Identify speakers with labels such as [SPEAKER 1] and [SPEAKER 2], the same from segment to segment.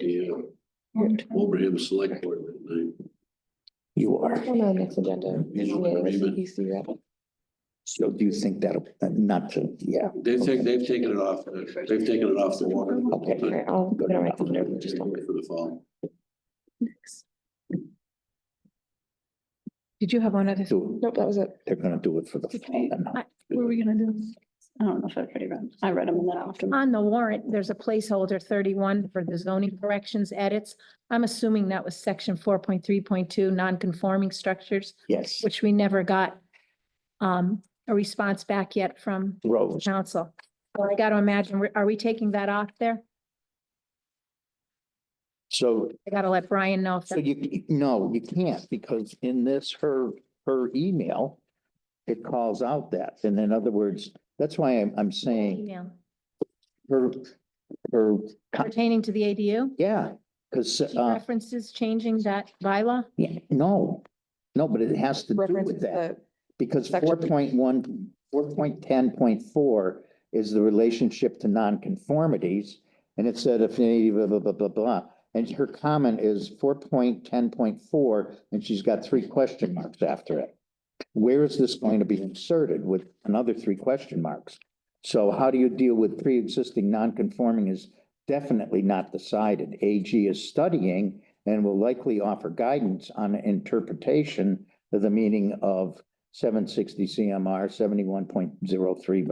[SPEAKER 1] yeah, uh, Wilbraham Select Board that night.
[SPEAKER 2] You are.
[SPEAKER 3] On the next agenda.
[SPEAKER 1] You know what I mean, but-
[SPEAKER 3] CPC rep.
[SPEAKER 2] So do you think that'll, uh, not to, yeah,
[SPEAKER 1] They've taken, they've taken it off, the- they've taken it off the water.
[SPEAKER 2] Okay.
[SPEAKER 3] All right, I'll put it on my calendar, just don't-
[SPEAKER 1] For the fall.
[SPEAKER 4] Did you have one other?
[SPEAKER 2] do,
[SPEAKER 3] Nope, that was it.
[SPEAKER 2] they're gonna do it for the. fall and not-
[SPEAKER 5] What were we gonna do? I don't know if I already read, I read them and then often.
[SPEAKER 6] On the warrant, there's a placeholder thirty-one for the zoning corrections edits. I'm assuming that was section four point three point two, non-conforming structures,
[SPEAKER 2] Yes,
[SPEAKER 6] which we never got um, a response back yet from
[SPEAKER 2] Rose,
[SPEAKER 6] council. So I got to imagine, are we taking that off there?
[SPEAKER 2] so,
[SPEAKER 6] I got to let Brian know if
[SPEAKER 2] so
[SPEAKER 6] that-
[SPEAKER 2] you, no, you can't, because in this, her, her email, it calls out that, and in other words, that's why I'm, I'm saying
[SPEAKER 6] email
[SPEAKER 2] her, her,
[SPEAKER 6] pertaining to the ADU.
[SPEAKER 2] yeah, because,
[SPEAKER 6] She
[SPEAKER 2] uh,
[SPEAKER 6] references changing that bylaw.
[SPEAKER 2] yeah, no, no, but it has to do
[SPEAKER 3] References
[SPEAKER 2] with that.
[SPEAKER 3] the
[SPEAKER 2] Because
[SPEAKER 3] Section-
[SPEAKER 2] four point one, four point ten point four is the relationship to nonconformities. And it said if any blah, blah, blah, blah, blah. And her comment is four point ten point four, and she's got three question marks after it. Where is this going to be inserted with another three question marks? So how do you deal with pre-existing nonconforming is definitely not decided. AG is studying and will likely offer guidance on interpretation of the meaning of seven sixty CMR seventy-one point zero three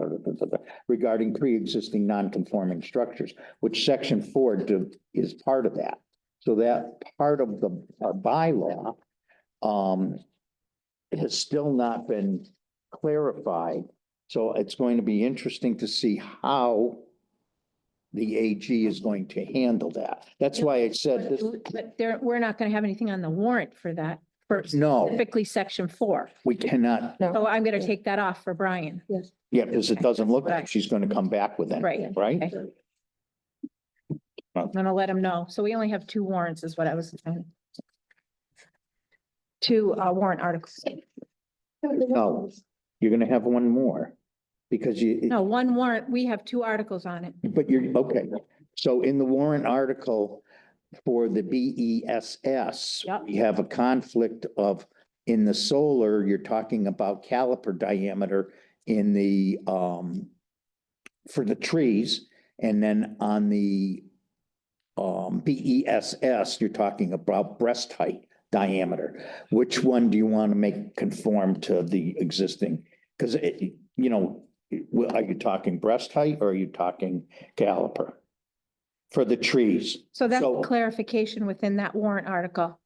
[SPEAKER 2] regarding pre-existing non-conforming structures, which section four do- is part of that. So that part of the our bylaw um has still not been clarified. So it's going to be interesting to see how the AG is going to handle that. That's why I said this,
[SPEAKER 6] But there, we're not going to have anything on the warrant for that, for
[SPEAKER 2] no,
[SPEAKER 6] specifically section four.
[SPEAKER 2] we cannot
[SPEAKER 6] So I'm going to take that off for Brian.
[SPEAKER 2] Yeah, because it doesn't look
[SPEAKER 6] Right.
[SPEAKER 2] like she's gonna come back with it,
[SPEAKER 6] Right.
[SPEAKER 2] right?
[SPEAKER 6] Okay. I'm gonna let him know. So we only have two warrants is what I was. saying. Two uh, warrant articles.
[SPEAKER 2] No, you're gonna have one more, because you,
[SPEAKER 6] No, one warrant, we have two articles on it.
[SPEAKER 2] but you're, okay. So in the warrant article for the B E S S,
[SPEAKER 6] Yep.
[SPEAKER 2] we have a conflict of, in the solar, you're talking about caliper diameter in the, um, for the trees, and then on the um, B E S S, you're talking about breast height diameter. Which one do you want to make conform to the existing? Because it, you know, it- well, are you talking breast height or are you talking caliper? For the trees,
[SPEAKER 6] So that's
[SPEAKER 2] So-
[SPEAKER 6] clarification within that warrant article.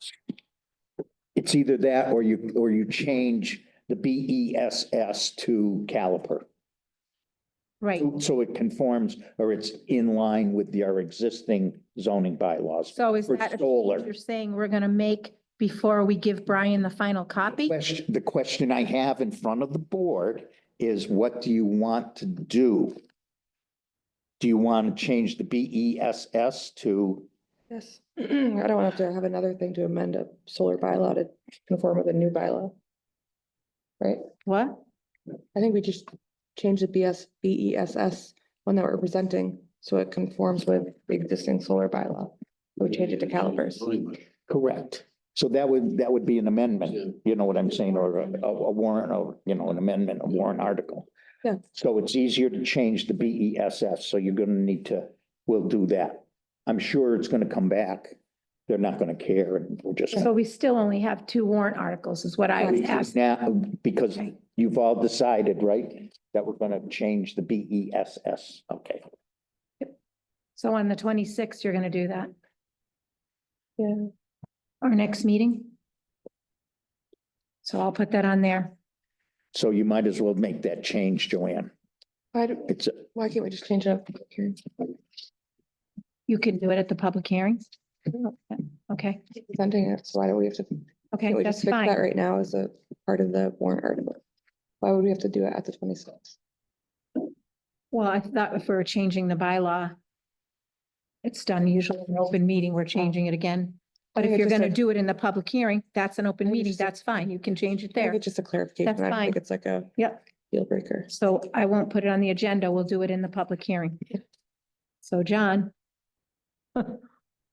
[SPEAKER 2] it's either that or you, or you change the B E S S to caliper.
[SPEAKER 6] Right.
[SPEAKER 2] So it conforms or it's in line with your existing zoning bylaws.
[SPEAKER 6] So is
[SPEAKER 2] For
[SPEAKER 6] that a
[SPEAKER 2] solar.
[SPEAKER 6] change you're saying we're gonna make before we give Brian the final copy?
[SPEAKER 2] Question, the question I have in front of the board is what do you want to do? Do you want to change the B E S S to,
[SPEAKER 3] Yes, I don't have to have another thing to amend a solar bylaw to conform with a new bylaw. Right?
[SPEAKER 6] What?
[SPEAKER 3] I think we just change the BS, BESS, E one that we're presenting, so it conforms with the existing solar bylaw. We change it to calipers.
[SPEAKER 2] correct? So that would, that would be an
[SPEAKER 1] Yeah.
[SPEAKER 2] amendment, you know what I'm saying, or a, a warrant, or, you know, an amendment, a warrant article.
[SPEAKER 3] Yeah.
[SPEAKER 2] So it's easier to change the B E S S, so you're gonna need to, we'll do that. I'm sure it's gonna come back. They're not gonna care and we're just.
[SPEAKER 6] So we still only have two warrant articles is what I was asked.
[SPEAKER 2] Now, because you've all decided, right, that we're gonna change the B E S S, okay.
[SPEAKER 6] So on the twenty-sixth, you're gonna do that?
[SPEAKER 3] Yeah.
[SPEAKER 6] Our next meeting? So I'll put that on there.
[SPEAKER 2] So you might as well make that change, Joanne.
[SPEAKER 3] Why, do-
[SPEAKER 2] It's,
[SPEAKER 3] why can't we just change it up here?
[SPEAKER 6] You can do it at the public hearings? Okay,
[SPEAKER 3] Presenting it, so why do we have to,
[SPEAKER 6] okay,
[SPEAKER 3] can't we
[SPEAKER 6] that's
[SPEAKER 3] just fix that
[SPEAKER 6] fine.
[SPEAKER 3] right now as a part of the warrant article? Why would we have to do it at the twenty-sixth?
[SPEAKER 6] Well, I thought if we were changing the bylaw, it's done usually in an open meeting, we're changing it again. But if you're gonna do it in the public hearing, that's an open
[SPEAKER 3] I think
[SPEAKER 6] meeting,
[SPEAKER 3] it's a-
[SPEAKER 6] that's fine, you can change it
[SPEAKER 3] I think
[SPEAKER 6] there.
[SPEAKER 3] it's just a clarification.
[SPEAKER 6] That's
[SPEAKER 3] I don't think
[SPEAKER 6] fine.
[SPEAKER 3] it's like a.
[SPEAKER 6] Yep.
[SPEAKER 3] Deal breaker.
[SPEAKER 6] So I won't put it on the agenda, we'll do it in the public hearing. So John?